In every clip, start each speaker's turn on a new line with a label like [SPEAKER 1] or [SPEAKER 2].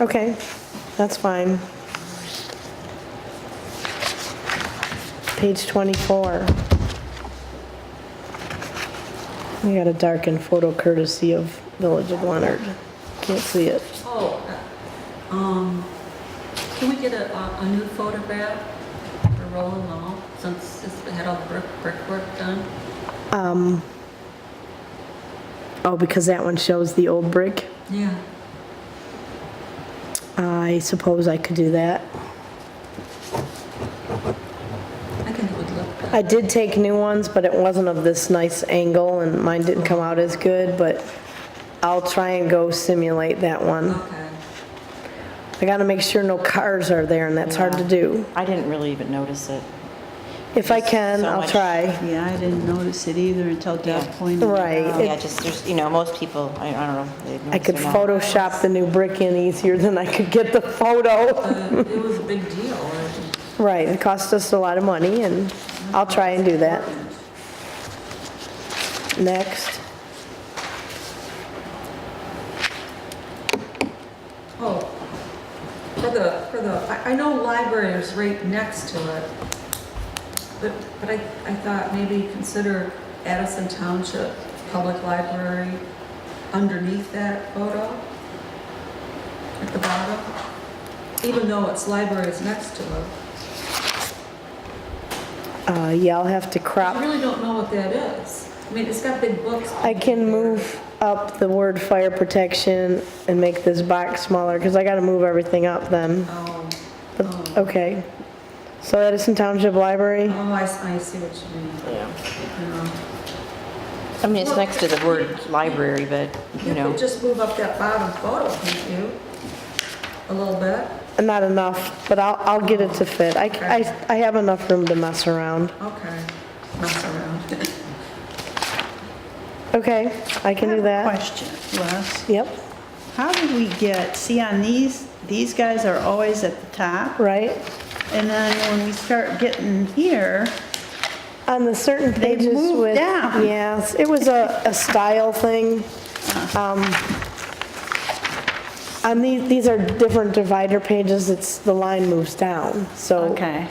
[SPEAKER 1] Okay, that's fine. Page 24. We got a darkened photo courtesy of Village of Leonard. Can't see it.
[SPEAKER 2] Oh, uh, um, can we get a, a a new photograph for Roland Mall since it's had all the brick, brickwork done?
[SPEAKER 1] Oh, because that one shows the old brick.
[SPEAKER 2] Yeah.
[SPEAKER 1] I suppose I could do that.
[SPEAKER 2] I think it would look good.
[SPEAKER 1] I did take new ones, but it wasn't of this nice angle and mine didn't come out as good, but I'll try and go simulate that one.
[SPEAKER 2] Okay.
[SPEAKER 1] I gotta make sure no cars are there and that's hard to do.
[SPEAKER 3] I didn't really even notice it.
[SPEAKER 1] If I can,
[SPEAKER 3] So
[SPEAKER 1] I'll
[SPEAKER 3] much-
[SPEAKER 1] try.
[SPEAKER 4] Yeah, I didn't notice it either until Deb
[SPEAKER 3] Yeah.
[SPEAKER 4] pointed it out.
[SPEAKER 1] Right. It-
[SPEAKER 3] Yeah, just, there's, you know, most people, I I don't know. if they
[SPEAKER 1] I could
[SPEAKER 3] notice or not.
[SPEAKER 1] Photoshop the new brick in easier than I could get the photo.
[SPEAKER 2] Uh, It was a big deal. and-
[SPEAKER 1] Right, it cost us a lot of money, and I'll try and do that. Next,
[SPEAKER 2] Oh, for the, for the, I, I know library is right next to it, but, but I, I thought maybe consider Addison Township Public Library underneath that photo, at the bottom, even though its library is next to it.
[SPEAKER 1] uh, yeah, I'll have to
[SPEAKER 2] I
[SPEAKER 1] crop.
[SPEAKER 2] really don't know what that is. I mean, it's got big books.
[SPEAKER 1] I can move up the word fire protection and make this box smaller, because I gotta move everything up then.
[SPEAKER 2] Oh,
[SPEAKER 1] But- Okay. So Edison Township Library,
[SPEAKER 2] oh, I, s- I see what you mean.
[SPEAKER 3] Yeah.
[SPEAKER 2] Yeah.
[SPEAKER 3] I mean, it's next to the word library, but, you
[SPEAKER 2] You
[SPEAKER 3] know,
[SPEAKER 2] could just move up that bottom photo, can't you? A little bit?
[SPEAKER 1] not enough, but I'll, I'll get it to fit. I, I, I have enough room to mess around.
[SPEAKER 2] Okay. Mess around.
[SPEAKER 1] Okay, I can do
[SPEAKER 4] I have a
[SPEAKER 1] that.
[SPEAKER 4] question, Les.
[SPEAKER 1] Yep,
[SPEAKER 4] How did we get, see on these, these guys are always at the top,
[SPEAKER 1] right.
[SPEAKER 4] and then when we start getting here,
[SPEAKER 1] On the certain
[SPEAKER 4] They
[SPEAKER 1] pages
[SPEAKER 4] moved
[SPEAKER 1] with.
[SPEAKER 4] down.
[SPEAKER 1] Yes, it was a, a style thing. Um, On these, these are different divider pages, it's, the line moves down, so.
[SPEAKER 4] okay.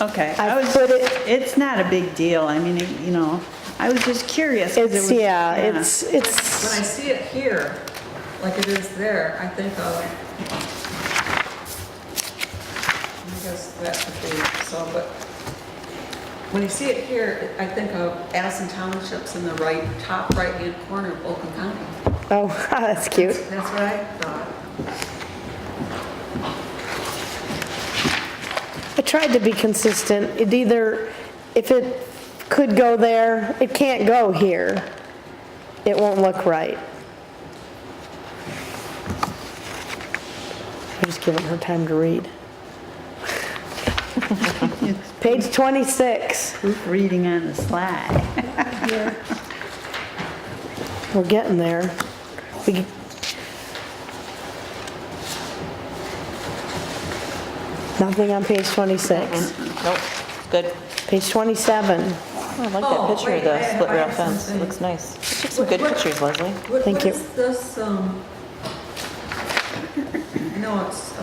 [SPEAKER 4] Okay,
[SPEAKER 1] I
[SPEAKER 4] I was,
[SPEAKER 1] put it-
[SPEAKER 4] it's not a big deal, I mean, it- you know, I was just curious. 'cause it
[SPEAKER 1] It's,
[SPEAKER 4] was-
[SPEAKER 1] yeah, it's,
[SPEAKER 2] When I
[SPEAKER 1] it's,
[SPEAKER 2] see it here, like it is there, I think of, I guess that could be, so, but when you see it here, I think of Addison Township's in the right, top right-hand corner of Oakland County.
[SPEAKER 1] oh, that's cute.
[SPEAKER 2] That's what I thought.
[SPEAKER 1] I tried to be consistent. It either, if it could go there, it can't go here. It won't look right. I'm just giving her time to read. Page 26.
[SPEAKER 4] Reading on the slide.
[SPEAKER 1] We're getting there. We- Nothing on page 26.
[SPEAKER 3] nope, good.
[SPEAKER 1] Page 27.
[SPEAKER 3] Oh, I like
[SPEAKER 2] Oh,
[SPEAKER 3] that picture of
[SPEAKER 2] wait, I-
[SPEAKER 3] the split
[SPEAKER 2] I
[SPEAKER 3] rail
[SPEAKER 2] have
[SPEAKER 3] fence. It
[SPEAKER 2] something.
[SPEAKER 3] Looks nice. You Took some
[SPEAKER 2] What-
[SPEAKER 3] good
[SPEAKER 2] what-
[SPEAKER 3] pictures, Leslie.
[SPEAKER 2] What-
[SPEAKER 1] Thank you.
[SPEAKER 2] What is this, um, I know it's, uh,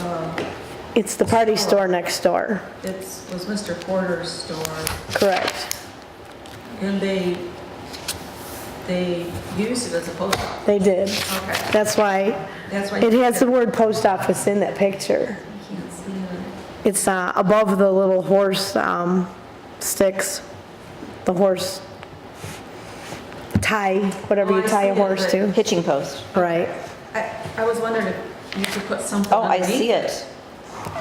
[SPEAKER 1] It's the party store next door,
[SPEAKER 2] it's, was Mr. Porter's store.
[SPEAKER 1] correct.
[SPEAKER 2] And they, they used it as a post office.
[SPEAKER 1] They did.
[SPEAKER 2] Okay,
[SPEAKER 1] That's why
[SPEAKER 2] that's why.
[SPEAKER 1] it has the word post office in that picture.
[SPEAKER 2] I can't see it.
[SPEAKER 1] It's uh, above the little horse um, sticks, the horse tie, whatever you
[SPEAKER 2] Oh, I
[SPEAKER 1] tie a
[SPEAKER 2] see it,
[SPEAKER 1] horse to.
[SPEAKER 3] Hitching post.
[SPEAKER 1] Right.
[SPEAKER 2] I, I was wondering if you could put something
[SPEAKER 3] Oh,
[SPEAKER 2] underneath.
[SPEAKER 3] I see it.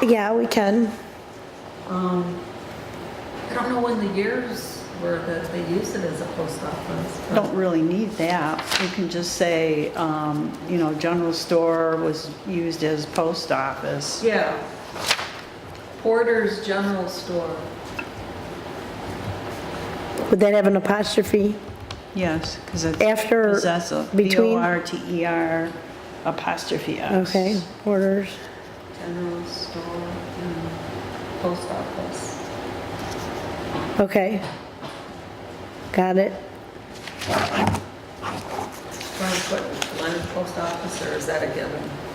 [SPEAKER 1] Yeah, we can.
[SPEAKER 2] Um, I don't know when the years were that they used it as a post office. but-
[SPEAKER 4] Don't really need that, you can just say, um, you know, general store was used as post office.
[SPEAKER 2] Yeah. Porter's General Store.
[SPEAKER 1] Would that have an apostrophe?
[SPEAKER 4] Yes, because it's.
[SPEAKER 1] After,
[SPEAKER 4] Possessive,
[SPEAKER 1] between-
[SPEAKER 4] B-O-R-T-E-R E apostrophe S.
[SPEAKER 1] Okay, orders.
[SPEAKER 2] General Store, mm, Post Office.
[SPEAKER 1] Okay. Got it.
[SPEAKER 2] Do you want to put Leonard Post Office, or is that a given?